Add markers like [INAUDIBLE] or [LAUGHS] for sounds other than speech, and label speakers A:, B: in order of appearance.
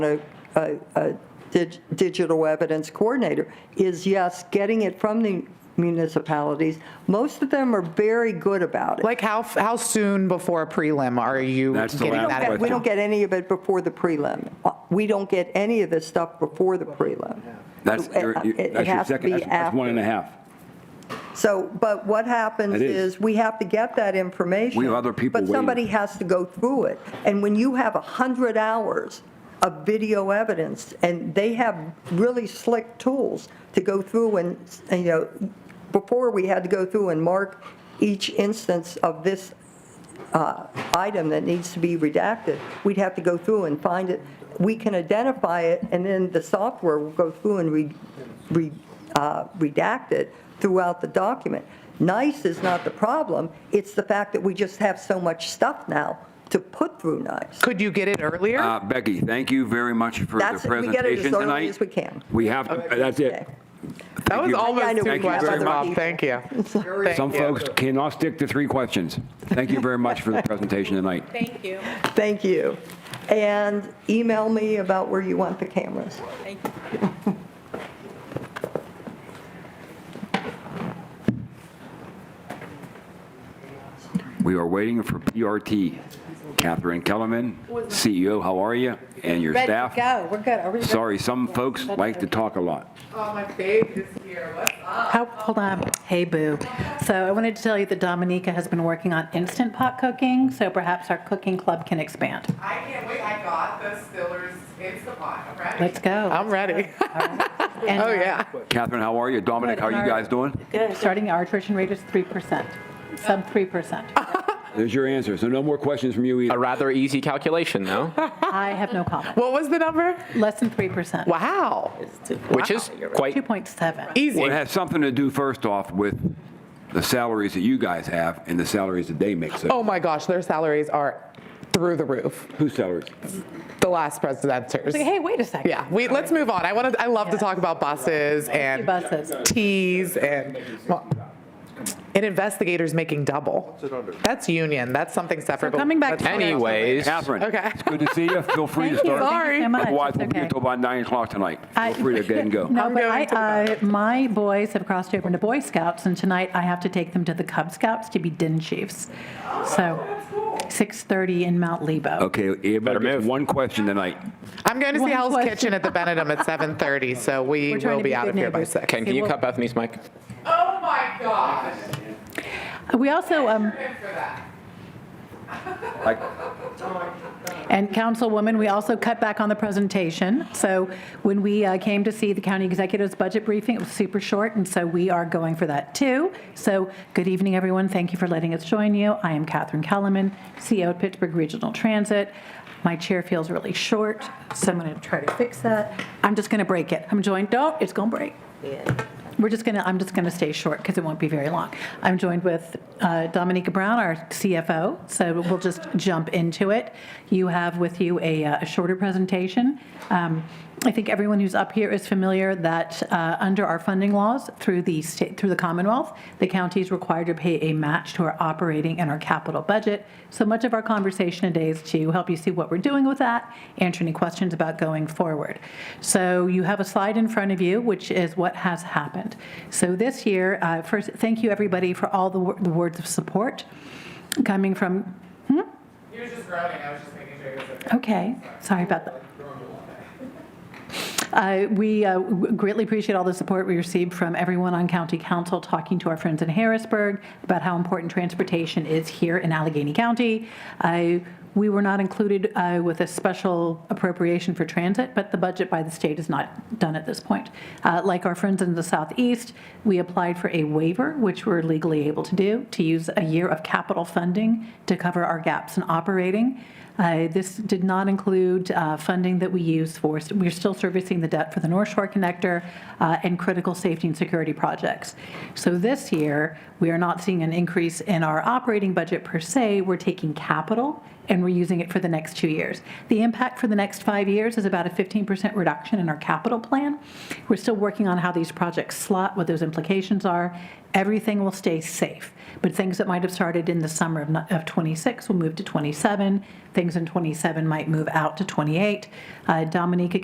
A: a, a- a dig- digital evidence coordinator is yes, getting it from the municipalities. Most of them are very good about it.
B: Like how, how soon before a prelim are you
C: That's the
B: getting
A: We
C: last
A: don't
B: that?
A: get- We don't get any of it before the prelim. Uh, We don't get any of this stuff before the prelim.
C: That's
A: It-
C: your, you-
A: it- it
C: that's your
A: has to
C: second,
A: be
C: that's- that's one and a
A: after.
C: half.
A: So, but what happens
C: It is.
A: is, we have to get that information.
C: We have other people
A: But
C: waiting.
A: somebody has to go through it. And when you have 100 hours of video evidence, and they have really slick tools to go through and, and, you know, before we had to go through and mark each instance of this uh, item that needs to be redacted, we'd have to go through and find it. We can identify it, and then the software will go through and re- re- uh, redact it throughout the document. NICE is not the problem, it's the fact that we just have so much stuff now to put through NICE.
B: Could you get it earlier?
C: Uh, Becky, thank you very much for the
A: That's, we get it as
C: presentation
A: early as
C: tonight.
A: we can.
C: We have, to. that's it.
A: Okay.
B: That was
C: you.
A: I
B: almost
A: know we
B: two
A: have
B: questions,
A: other
B: Bob.
A: people.
B: Thank you.
C: Some folks cannot stick to three questions. Thank you very much for the presentation tonight.
D: [LAUGHS] Thank you.
A: Thank you. And email me about where you want the cameras.
D: Thank you.
C: We are waiting for PRT. Catherine Kellerman, CEO, how are you? And your
D: Ready to
C: staff?
D: go. We're good. Are we? ready?
C: Sorry, some folks like to talk a lot.
B: Oh, my babe is here. What's up?
E: How, Oh, hold on. Hey, boo. So I wanted to tell you that Dominica has been working on instant pot cooking, so perhaps our cooking club can expand.
F: I can't wait. I got the Stillers Instapot. I'm ready.
E: Let's go.
B: I'm ready. [LAUGHS]
E: And,
B: Oh,
E: uh,
B: yeah.
C: Catherine, how are you? Dominic, how are you guys doing?
E: Starting our attrition rate is 3%, sub 3%.
C: There's your answer. So no more questions from you
G: A
C: either.
G: rather easy calculation, though,
E: I have no comment.
B: What was the number?
E: Less than 3%.
B: Wow.
G: which is quite
E: 2.7.
B: Easy.
C: Well, it has something to do, first off, with the salaries that you guys have and the salaries that they make. So
B: Oh, my gosh, their salaries are through the roof.
C: whose salaries?
B: The last presenters.
E: Like, hey, wait a second.
B: Yeah, we, let's move on. I want to, I love to talk about buses and
E: buses.
B: teas and, well, and investigators making double. That's union. That's something separate. but
E: coming back
B: that's
E: to-
B: fine.
G: anyways.
C: Catherine.
B: Okay.
C: It's good to see you. Feel free to
E: Thank you.
C: start.
E: Thank you so much.
C: Otherwise, we'll
E: It's
C: be here
E: okay.
C: until about 9 o'clock tonight. Feel
E: I-
C: free to get and go.
E: [LAUGHS] No, but I,
B: going to
E: I, my boys have crossed over into Boy Scouts, and tonight I have to take them to the Cub Scouts to be din chiefs. So 6:30 in Mount Lebo.
C: Okay, everybody gets one question tonight.
B: I'm going to see
E: One
B: Hell's
E: question.
B: Kitchen at the Benedum at 7:30, so we
E: We're trying
B: will
E: to
B: be
E: be
B: out
E: good
B: of here by
E: neighbors.
B: six.
G: Ken, can you
E: well-
G: cut Bethany's mic?
F: Oh my gosh.
E: We also, um,
F: Thanks for that.
C: Like,
E: And Councilwoman, we also cut back on the presentation. So when we uh, came to see the county executive's budget briefing, it was super short, and so we are going for that too. So good evening, everyone. Thank you for letting us join you. I am Catherine Kellerman, CEO at Pittsburgh Regional Transit. My chair feels really short, so I'm going to try to fix that. I'm just going to break it. I'm joined, don't, it's going to break. We're just going to, I'm just going to stay short because it won't be very long. I'm joined with uh, Dominica Brown, our CFO, so we'll just jump into it. You have with you a uh, a shorter presentation. Um, I think everyone who's up here is familiar that uh, under our funding laws through the state, through the Commonwealth, the county is required to pay a match to our operating and our capital budget. So much of our conversation today is to help you see what we're doing with that, answer any questions about going forward. So you have a slide in front of you, which is what has happened. So this year, uh, first, thank you everybody for all the, wor- the words of support coming from,
F: You were just groaning. I was just making sure you was okay.
E: okay, sorry about that. Uh, We uh, w- greatly appreciate all the support we received from everyone on county council, talking to our friends in Harrisburg about how important transportation is here in Allegheny County. I- We were not included uh, with a special appropriation for transit, but the budget by the state is not done at this point. Uh, Like our friends in the southeast, we applied for a waiver, which we're legally able to do, to use a year of capital funding to cover our gaps in operating. Uh, This did not include uh, funding that we use for, we're still servicing the debt for the North Shore Connector uh, and critical safety and security projects. So this year, we are not seeing an increase in our operating budget per se. We're taking capital and we're using it for the next two years. The impact for the next five years is about a 15% reduction in our capital plan. We're still working on how these projects slot, what those implications are. Everything will stay safe, but things that might have started in the summer of ni- of '26 will move to '27. Uh, things in '27 might move out to '28. Dominica